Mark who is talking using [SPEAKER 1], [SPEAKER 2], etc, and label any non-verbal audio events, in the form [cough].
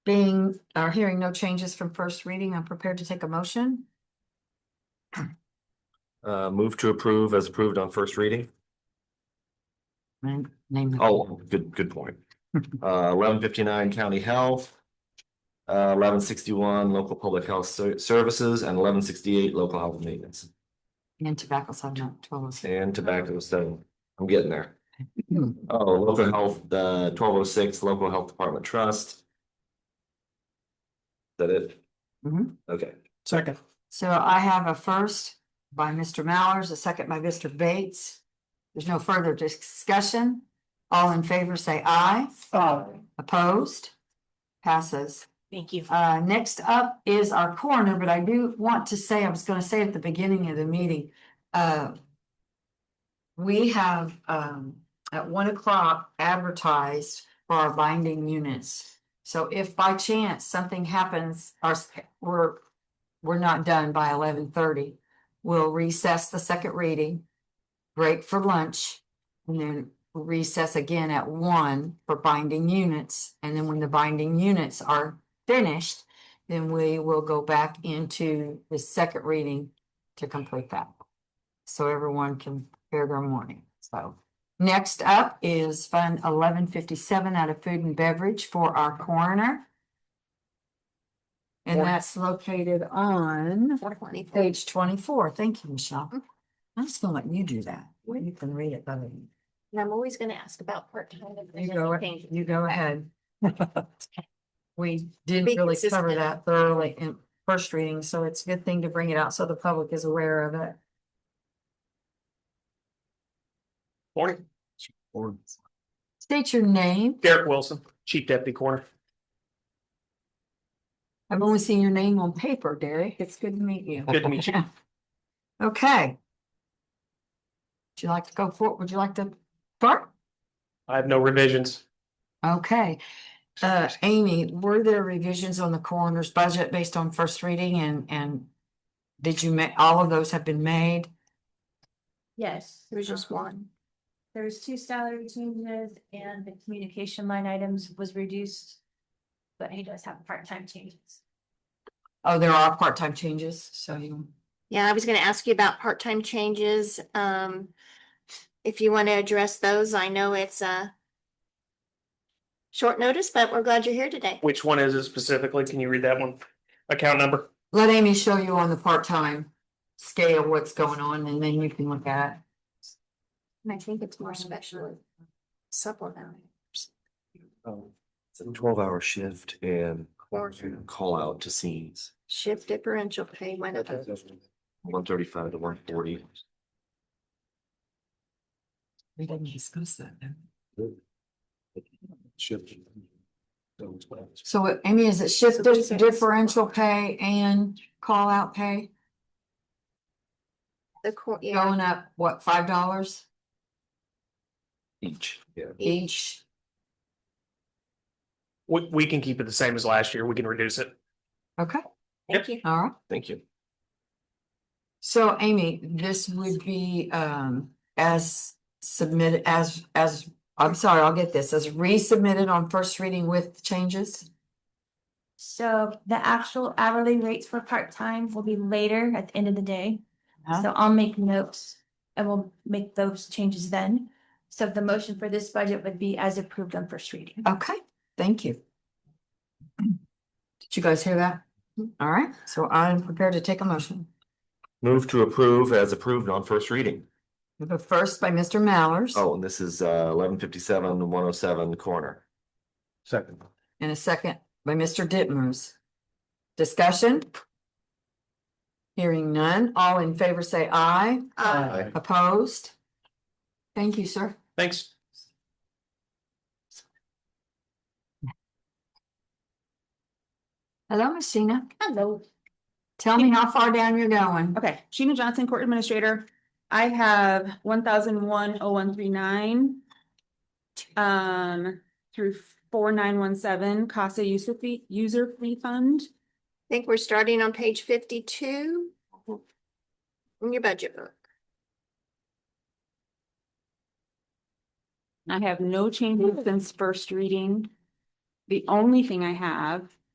[SPEAKER 1] Being, or hearing no changes from first reading, I'm prepared to take a motion.
[SPEAKER 2] Uh, move to approve as approved on first reading.
[SPEAKER 1] And name. the-
[SPEAKER 2] Oh, good, good point. Uh, eleven fifty-nine county health. Uh, eleven sixty-one local public health ser- services and eleven sixty-eight local health maintenance
[SPEAKER 1] And tobacco, so not twelve oh six.
[SPEAKER 2] and tobacco, so I'm getting there. Oh, local health, uh, twelve oh six, local health department trust. Is that it? Mm-hmm.
[SPEAKER 1] Mhm.
[SPEAKER 2] Okay,
[SPEAKER 3] Second.
[SPEAKER 1] So I have a first by Mr. Mallers, a second by Mr. Bates. There's no further discussion. All in favor, say aye. Opposed? Passes.
[SPEAKER 4] Thank you.
[SPEAKER 1] Uh, next up is our coroner, but I do want to say, I was gonna say at the beginning of the meeting, uh. We have, um, at one o'clock advertised for our binding units. So if by chance something happens, our, s- we're, we're not done by eleven thirty. We'll recess the second reading, break for lunch, and then recess again at one for binding units. And then when the binding units are finished, then we will go back into the second reading to complete that. So everyone can hear their morning, so. Next up is Fund eleven fifty-seven out of food and beverage for our coroner. And
[SPEAKER 4] Four.
[SPEAKER 1] that's located on
[SPEAKER 4] Four twenty-four. Mm-hmm.
[SPEAKER 1] page twenty-four. Thank you, Michelle. I'm just gonna let you do that. You can read it, but
[SPEAKER 4] And I'm always gonna ask about part-time. if there's
[SPEAKER 1] you go,
[SPEAKER 4] anything.
[SPEAKER 1] you go ahead. [laughs] We
[SPEAKER 4] Be
[SPEAKER 1] didn't really cover
[SPEAKER 4] consistent.
[SPEAKER 1] that thoroughly in first reading, so it's a good thing to bring it out so the public is aware of it.
[SPEAKER 3] Morning,
[SPEAKER 1] State your name.
[SPEAKER 3] Derek Wilson, Chief Deputy Coroner.
[SPEAKER 1] I've only seen your name on paper, Derek. It's good to meet you.
[SPEAKER 3] Good to meet you.
[SPEAKER 1] [laughs] Okay. Would you like to go for, would you like to start?
[SPEAKER 3] I have no revisions.
[SPEAKER 1] Okay, uh, Amy, were there revisions on the coroner's budget based on first reading and, and did you make, all of those have been made?
[SPEAKER 5] Yes.
[SPEAKER 4] There was just
[SPEAKER 5] um,
[SPEAKER 4] one.
[SPEAKER 5] There was two salary changes and the communication line items was reduced. But he does have part-time changes.
[SPEAKER 1] Oh, there are part-time changes, so you,
[SPEAKER 4] Yeah, I was gonna ask you about part-time changes. Um, if you want to address those, I know it's a short notice, but we're glad you're here today.
[SPEAKER 3] Which one is it specifically? Can you read that one? Account number?
[SPEAKER 1] let Amy show you on the part-time scale what's going on and then you can look at it.
[SPEAKER 4] And I think it's more special supplemental.
[SPEAKER 2] um, it's a twelve-hour shift and
[SPEAKER 4] Morning.
[SPEAKER 2] call out to scenes.
[SPEAKER 4] Shift differential pay went up.
[SPEAKER 2] One thirty-five to one forty.
[SPEAKER 1] We didn't discuss that then.
[SPEAKER 2] Shift.
[SPEAKER 1] So uh, Amy, is it shift di- differential pay and call-out pay
[SPEAKER 4] The court, yeah,
[SPEAKER 1] going up, what, five dollars
[SPEAKER 2] Each, yeah.
[SPEAKER 1] each?
[SPEAKER 3] We, we can keep it the same as last year. We can reduce it.
[SPEAKER 1] Okay,
[SPEAKER 4] thank you.
[SPEAKER 1] all right.
[SPEAKER 2] Thank you.
[SPEAKER 1] So Amy, this would be um as submitted as as, I'm sorry, I'll get this, as resubmitted on first reading with changes?
[SPEAKER 5] So the actual hourly rates for part-time will be later at the end of the day.
[SPEAKER 1] Huh?
[SPEAKER 5] So I'll make notes and we'll make those changes then. So the motion for this budget would be as approved on first reading.
[SPEAKER 1] Okay, thank you. Did you guys hear that? All right, so I'm prepared to take a motion.
[SPEAKER 2] Move to approve as approved on first reading.
[SPEAKER 1] The first by Mr. Mallers.
[SPEAKER 2] Oh, and this is uh eleven fifty-seven, one oh seven corner. Second.
[SPEAKER 1] And a second by Mr. Ditmer's. Discussion? Hearing none, all in favor say aye,
[SPEAKER 4] Uh,
[SPEAKER 1] opposed? Thank you, sir.
[SPEAKER 3] Thanks.
[SPEAKER 1] Hello, Miss Sheena.
[SPEAKER 6] Hello.
[SPEAKER 1] Tell me how far down you're going.
[SPEAKER 6] Okay, Sheena Johnson, Court Administrator. I have one thousand one oh one three nine. Um, through four nine one seven CASA user fee, user fee fund.
[SPEAKER 4] I think we're starting on page fifty-two. In your budget book.
[SPEAKER 6] I have no changes since first reading. the only thing I have